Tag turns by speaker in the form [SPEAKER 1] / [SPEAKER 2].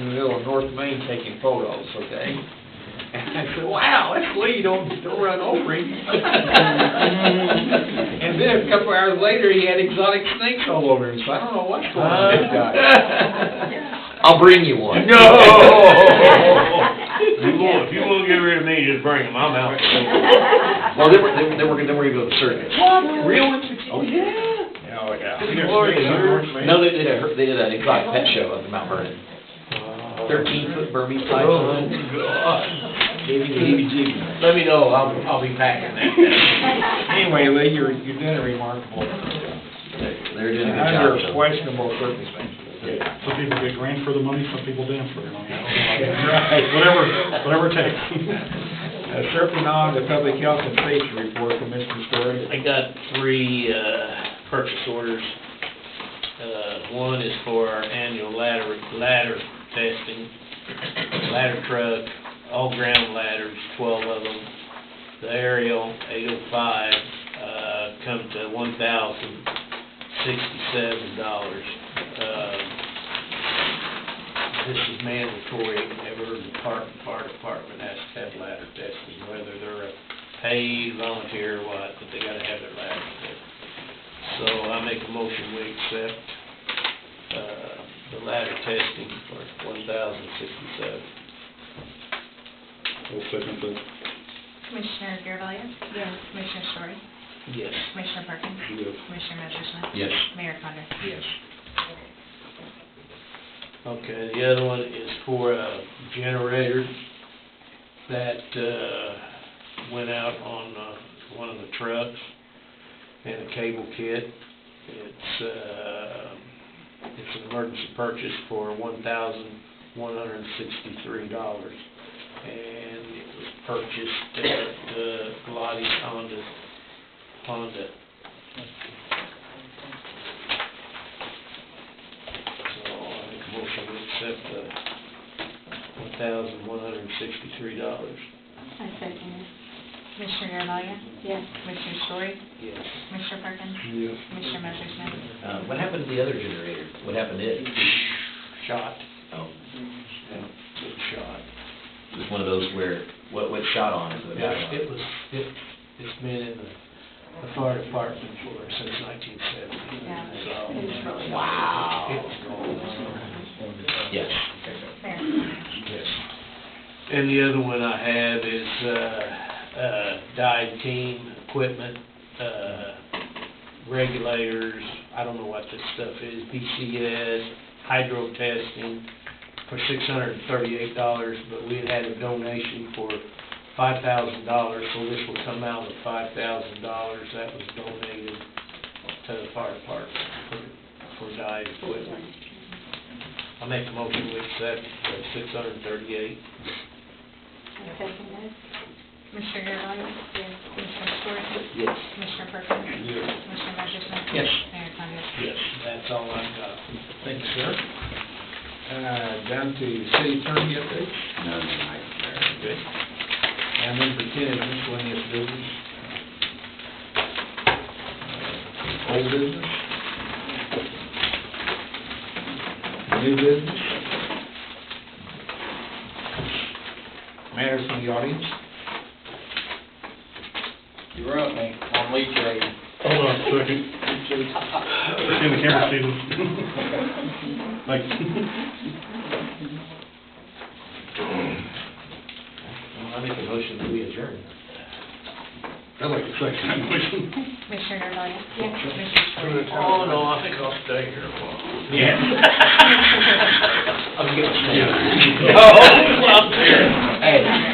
[SPEAKER 1] middle of North Main taking photos, okay? And I said, wow, that's Lee, don't, don't run over him. And then a couple hours later, he had exotic snakes all over him, so I don't know what's going on with this guy. Uh, I'll bring you one.
[SPEAKER 2] No! If you will, if you will get rid of me, just bring them, I'm out.
[SPEAKER 1] Well, then we're, then we're, then we're gonna go to circus.
[SPEAKER 2] Real?
[SPEAKER 1] Oh, yeah.
[SPEAKER 2] Oh, yeah.
[SPEAKER 1] Good lord, they were- No, they did a, they did an exotic pet show up in Mount Vernon. Thirteen foot Burmese python. Gave me the heebie-jeebies. Let me know, I'll, I'll be packing that.
[SPEAKER 2] Anyway, Lee, you're, you're doing remarkable,
[SPEAKER 1] They're doing a good job.
[SPEAKER 2] under
[SPEAKER 1] so-
[SPEAKER 2] questionable circumstances.
[SPEAKER 3] Some people get grand for the money, some people dance for the money.
[SPEAKER 2] Right,
[SPEAKER 3] Whatever, whatever it takes.
[SPEAKER 2] Uh, Surfing on to public health and safety report from Mr. Story.
[SPEAKER 4] I got three uh, purchase orders. Uh, One is for our annual ladder, ladder testing, ladder truck, all ground ladders, twelve of them. The aerial, eight oh five, uh, come to one thousand sixty-seven dollars. Uh, This is mandatory, every park, fire department has to have ladder testing, whether they're a paid volunteer or what, but they gotta have their ladder tested. So I make a motion, we accept, uh, the ladder testing for one thousand sixty-seven.
[SPEAKER 5] Commissioner Garvelia? Yes. Commissioner Story?
[SPEAKER 4] Yes.
[SPEAKER 5] Commissioner Perkins? Yes. Commissioner Merschman?
[SPEAKER 1] Yes.
[SPEAKER 5] Mayor Condon?
[SPEAKER 1] Yes.
[SPEAKER 4] Okay, the other one is for a generator that, uh, went out on, uh, one of the trucks and a cable kit. It's, uh, it's an emergency purchase for one thousand one hundred and sixty-three dollars. And it was purchased at, uh, Lottie's Honda, Honda. So I make a motion to accept the one thousand one hundred and sixty-three dollars.
[SPEAKER 6] I second
[SPEAKER 5] Commissioner Garvelia?
[SPEAKER 6] it, yes.
[SPEAKER 5] Commissioner Story?
[SPEAKER 4] Yes.
[SPEAKER 5] Commissioner Perkins? Commissioner Merschman?
[SPEAKER 1] Uh, what happened to the other generator? What happened to it?
[SPEAKER 4] Shot,
[SPEAKER 1] Oh,
[SPEAKER 4] good shot.
[SPEAKER 1] it was one of those where, what, what shot on it? what got
[SPEAKER 4] Yeah,
[SPEAKER 1] on
[SPEAKER 4] it was, it, it's been in the, the fire department for since nineteen seventy,
[SPEAKER 6] Yeah.
[SPEAKER 4] so.
[SPEAKER 6] It was really-
[SPEAKER 1] Wow.
[SPEAKER 4] It was going on.
[SPEAKER 1] Yes.
[SPEAKER 5] Mayor Condon?
[SPEAKER 4] Yes. And the other one I have is, uh, uh, dive team equipment, uh, regulators, I don't know what this stuff is, BCS, hydro testing for six hundred and thirty-eight dollars, but we had had a donation for five thousand dollars, so this will come out of five thousand dollars that was donated to the fire department for, for dive equipment. I make a motion to accept six hundred and thirty-eight.
[SPEAKER 6] I second it,
[SPEAKER 5] Commissioner Garvelia? Yes. Commissioner Story?
[SPEAKER 1] Yes.
[SPEAKER 5] Commissioner Perkins?
[SPEAKER 4] Yes.
[SPEAKER 5] Commissioner Merschman?
[SPEAKER 1] Yes.
[SPEAKER 5] Mayor Condon?
[SPEAKER 4] Yes, that's all I've got.
[SPEAKER 2] Thank you, sir. Uh, down to city attorney update.
[SPEAKER 1] No, no, I-
[SPEAKER 2] Good. And number ten is miscellaneous business. Uh, Old business. New business. Matters from the audience.
[SPEAKER 7] You're up, man, on leach rate.
[SPEAKER 3] Hold on a second. In the camera, Stephen. Thanks.
[SPEAKER 1] Well, I make a motion that we adjourn.
[SPEAKER 3] I like the second motion.
[SPEAKER 5] Commissioner Garvelia? Yes. Commissioner Story?
[SPEAKER 4] Oh, no, I think I'll stay here a while.
[SPEAKER 1] I'll give a stand.
[SPEAKER 3] Yeah.
[SPEAKER 4] Oh, I'm there.
[SPEAKER 1] Hey.